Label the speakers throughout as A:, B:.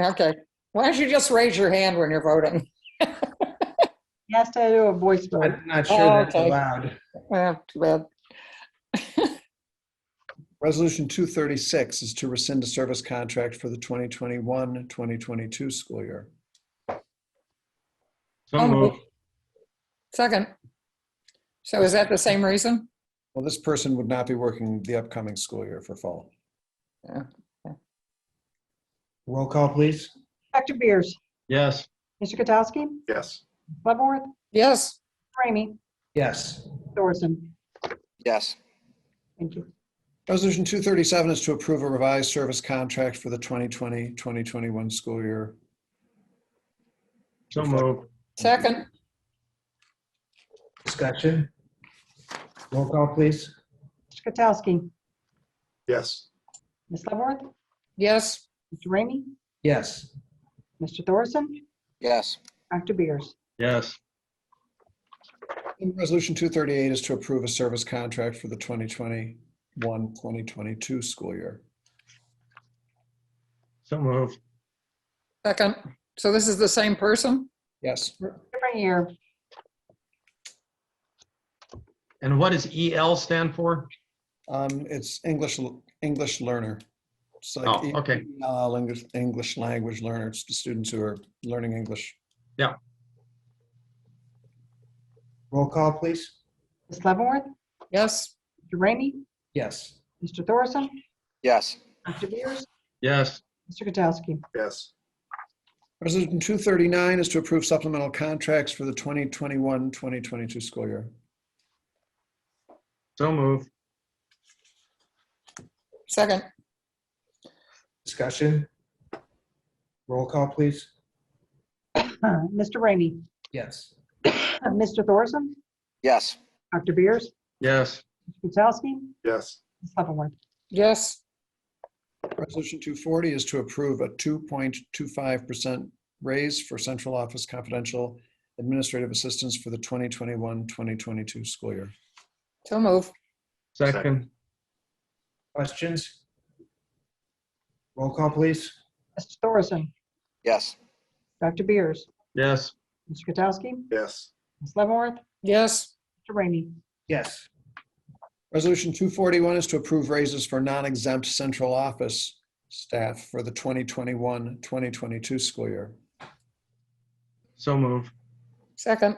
A: Okay. Why don't you just raise your hand when you're voting?
B: He has to do a voice vote.
C: I'm not
A: Oh,
C: sure that's
A: okay.
C: allowed.
A: Eh, Too bad.
D: Resolution 236 is to rescind a service contract for the 2021-2022 school year.
A: Oh,
E: So moved.
A: Second. So is that the same reason?
D: Well, this person would not be working the upcoming school year for fall.
C: Roll call, please.
B: Dr. Beers,
E: Yes.
B: Mr. Katsowski,
F: yes.
B: Leavenworth,
A: Yes.
B: Ramey,
C: Yes.
B: Thorson.
G: yes,
B: Thank you.
D: Resolution 237 is to approve a revised service contract for the 2020-2021 school year.
E: So moved.
A: Second.
C: Discussion. Roll call, please.
B: Mr. Katsowski,
F: Yes.
B: Ms. Leavenworth,
A: Yes.
B: Mr. Ramey,
C: Yes.
B: Mr. Thorson,
G: yes,
B: Dr. Beers.
E: Yes.
D: And Resolution 238 is to approve a service contract for the 2021-2022 school year.
E: So moved.
A: Second. So this is the same person?
D: Yes.
B: Different year.
E: And what does EL stand for?
D: Um, it's English, English learner. It's like E
E: Oh, okay.
D: EL, English, English language learner. It's the students who are learning English.
C: Roll call, please.
B: Ms. Leavenworth,
A: Yes.
B: Mr. Ramey,
C: Yes.
B: Mr. Thorson,
G: yes,
B: Dr. Beers,
E: Yes.
B: Mr. Katsowski.
F: Yes.
D: Resolution 239 is to approve supplemental contracts for the 2021, 2022 school year.
E: So moved.
A: Second.
C: Discussion. Roll call, please.
B: Uh, Mr. Ramey,
C: Yes.
B: uh, Mr. Thorson,
G: yes,
B: Dr. Beers,
E: Yes.
B: Mr. Katsowski,
F: Yes.
B: Ms. Leavenworth.
A: Yes.
D: Resolution 240 is to approve a 2.25% raise for central office confidential administrative assistance for the 2021, 2022 school year.
A: So move.
E: Second.
C: Questions? Roll call, please.
B: Mr. Thorson,
G: yes,
B: Dr. Beers,
E: Yes.
B: Mr. Katsowski,
F: Yes.
B: Ms. Leavenworth,
A: Yes.
B: Mr. Ramey,
C: Yes.
D: Resolution 241 is to approve raises for non-exempt central office staff for the 2021, 2022 school year.
E: So moved.
A: Second.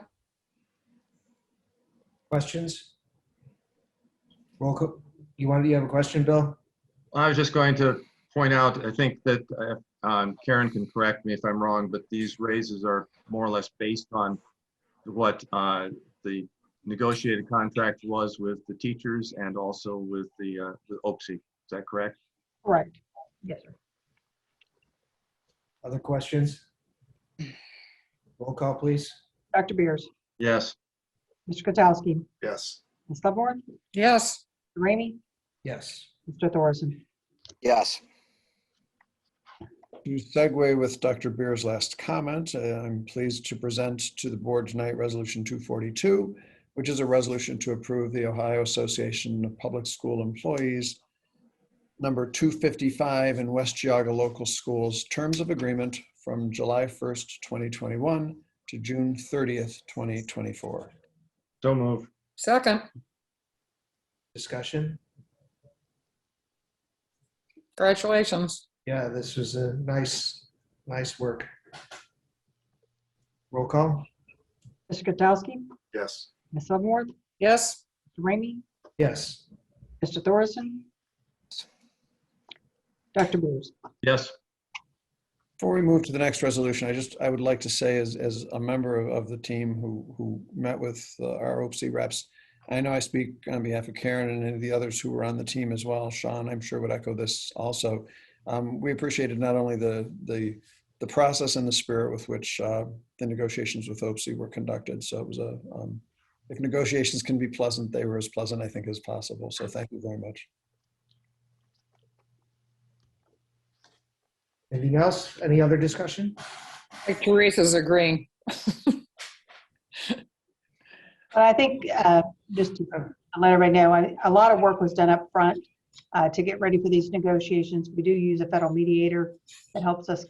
C: Questions? Roll call. You wanted, you have a question, Bill?
E: I was just going to point out, I think that uh, um, Karen can correct me if I'm wrong, but these raises are more or less based on what uh, the negotiated contract was with the teachers and also with the uh, the OPSI. Is that correct?
B: correct. Yes, sir.
C: Other questions? Roll call, please.
B: Dr. Beers,
E: Yes.
B: Mr. Katsowski,
F: Yes.
B: Ms. Leavenworth,
A: Yes.
B: Mr. Ramey,
C: Yes.
B: Mr. Thorson.
G: yes,
D: You segue with Dr. Beer's last comment. Uh, I'm pleased to present to the board tonight Resolution 242, which is a resolution to approve the Ohio Association of Public School Employees, number 255 in West Geauga Local Schools, Terms of Agreement from July 1st, 2021 to June 30th, 2024.
E: So moved.
A: Second.
C: Discussion?
A: Congratulations.
C: Yeah, this was a nice, nice work. Roll call?
B: Mr. Katsowski,
F: Yes.
B: Ms. Leavenworth,
A: Yes.
B: Mr. Ramey,
C: Yes.
B: Mr. Thorson, Dr. Beers.
E: Yes.
D: Before we move to the next resolution, I just, I would like to say as, as a member of, of the team who, who met with uh, our OPC reps, I know I speak on behalf of Karen and any of the others who were on the team as well. Sean, I'm sure would echo this also. Um, we appreciated not only the, the, the process and the spirit with which uh, the negotiations with OPC were conducted. So it was a, um, if negotiations can be pleasant, they were as pleasant, I think, as possible. So thank you very much.
C: Anything else? Any other discussion?
A: Like Teresa's agreeing.
B: But I think, uh, just to let everybody know, I- a lot of work was done up front uh, to get ready for these negotiations. We do use a federal mediator that helps us